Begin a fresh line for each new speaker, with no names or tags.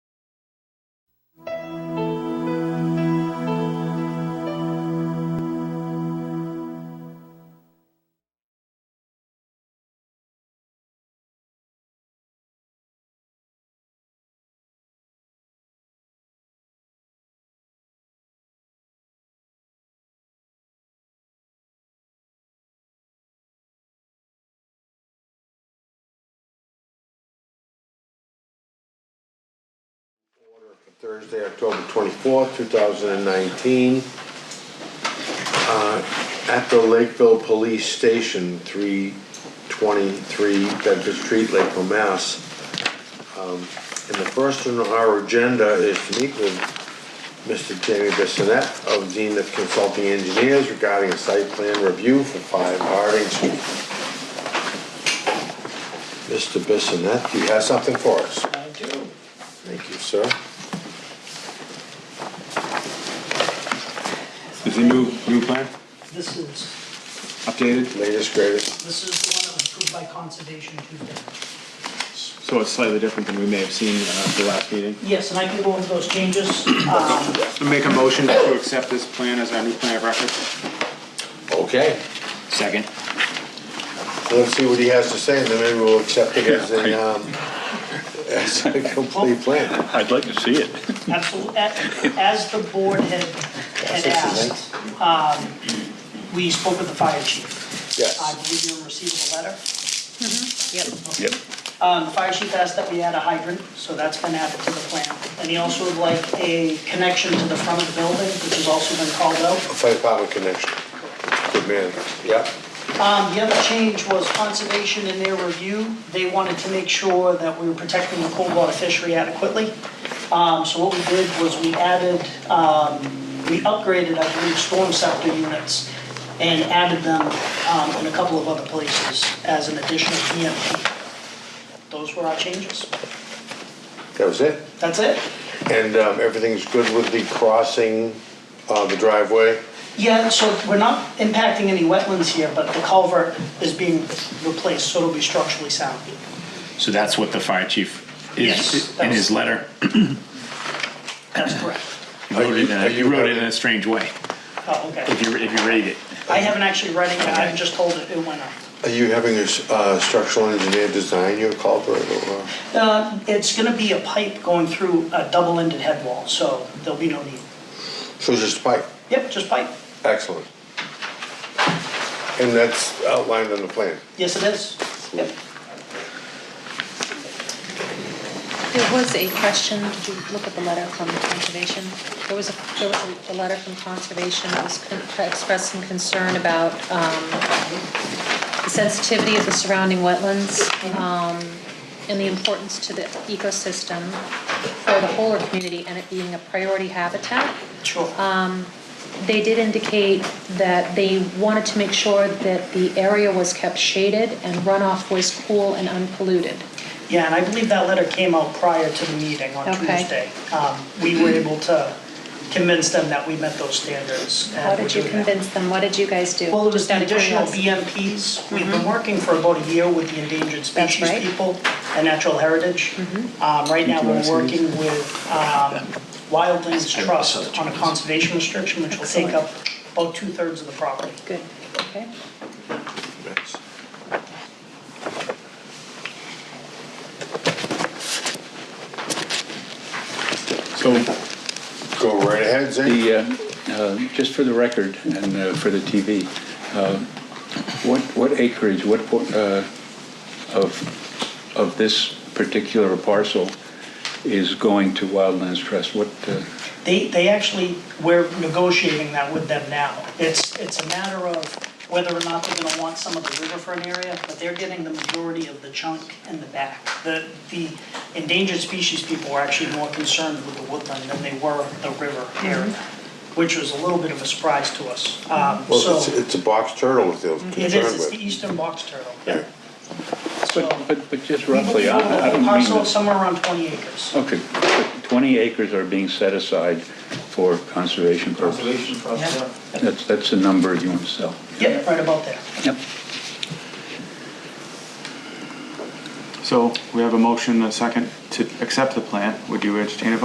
Thursday, October twenty-fourth, two thousand and nineteen. uh, At the Lakeville Police Station, three twenty-three Bedford Street, Lakeville, Mass. Um, And the first on our agenda is to meet with Mr. Jamie Bissonette of Zenith Consulting Engineers regarding a site plan review for five Harding Street. Mr. Bissonette, you have something for us?
I do.
Thank you, sir.
Is the new, new plan
This is,
updated?
Latest, greatest.
this is the one that was approved by Conservation Tuesday.
So it's slightly different than we may have seen uh, the last meeting.
Yes, and I can go over those changes. Um,
Make a motion to accept this plan as our new plan of record.
Okay,
Second.
let's see what he has to say, and then maybe we'll accept it as
Yeah,
a, um, as a complete plan.
I'd like to see it.
Absolutely, as the board had,
Yes,
had
this
asked, um, we spoke with the fire chief. I
Yes,
believe you received a letter.
Yep.
Um, the fire chief asked that we add a hydrant, so that's been added to the plan. And he also would like a connection to the front of the building, which has also been called out.
fire power connection. Good man. Yep.
Um, the other change was conservation in their review, they wanted to make sure that we were protecting the cold water fishery adequately. Um, so what we did was we added, um, we upgraded, I believe, storm scepter units and added them, um, in a couple of other places as an additional EMP. Those were our changes.
That was it.
That's it?
And, um, everything's good with the crossing, uh, the driveway?
Yeah, so we're not impacting any wetlands here, but the culvert is being replaced, so it'll be structurally sound.
So that's what the fire chief
Yes,
is,
that
in
was-
his letter,
That's correct.
he wrote it in
Are
a, he
you-
wrote it in a strange way,
Oh, okay.
if you, if you read it.
I haven't actually read it yet, I'm just told it, it went up.
Are you having a, s- uh, structural engineer design your culvert or?
Uh, It's gonna be a pipe going through a double-ended head wall, so there'll be no need.
So it's just a pipe?
Yep, just pipe.
Excellent. And that's outlined on the plan?
Yes, it is. Yep.
There was a question, did you look at the letter from Conservation? There was a, there was a- a letter from Conservation that was con- expressing concern about um, the sensitivity of the surrounding wetlands um, and the importance to the ecosystem for the whole community and it being a priority habitat
Sure.
Um, they did indicate that they wanted to make sure that the area was kept shaded and runoff was cool and unpolluted.
Yeah, and I believe that letter came out prior to the meeting on
Okay.
Tuesday. Um, We were able to convince them that we met those standards. and
How
we're
did you
doing that.
convince them? What did you guys do?
Well, it was
Just out
the
of
additional
curiosity.
BMPs. We've been working for about a year with the endangered species
Mm-hmm. right. Mm-hmm.
people and natural heritage. Um, Right now, we're working with um, Wildlands Trust on a conservation restriction, which will take up
Excellent.
about two-thirds of the property.
Good, okay.
Yes.
So
Go right ahead, Zane.
the, uh, Oh, uh, just for the record and uh, for the TV, uh, what what acreage, what, por- uh, of, of this particular parcel is going to Wildlands Trust? What, uh,
They, they actually, we're negotiating that with them now. It's, it's a matter of whether or not they're gonna want some of the riverfront area, but they're getting the majority of the chunk in the back. The, the endangered species people were actually more concerned with the woodland than they were the river area, which was a little bit of a surprise to us. Um,
Well,
so,
it's, it's a box turtle that they're
it
concerned
is, it's
with.
the eastern box turtle.
Yeah.
So,
but, but but just
we believe
roughly, I I
the
don't mean
parcel
to-
somewhere around twenty acres.
Okay, but 20 acres are being set aside for conservation purposes.
Yeah,
That's, that's the number you want to sell.
Yep, right about there.
Yep.
So we have a motion, a second, to accept the plan. Would you entertain a vote?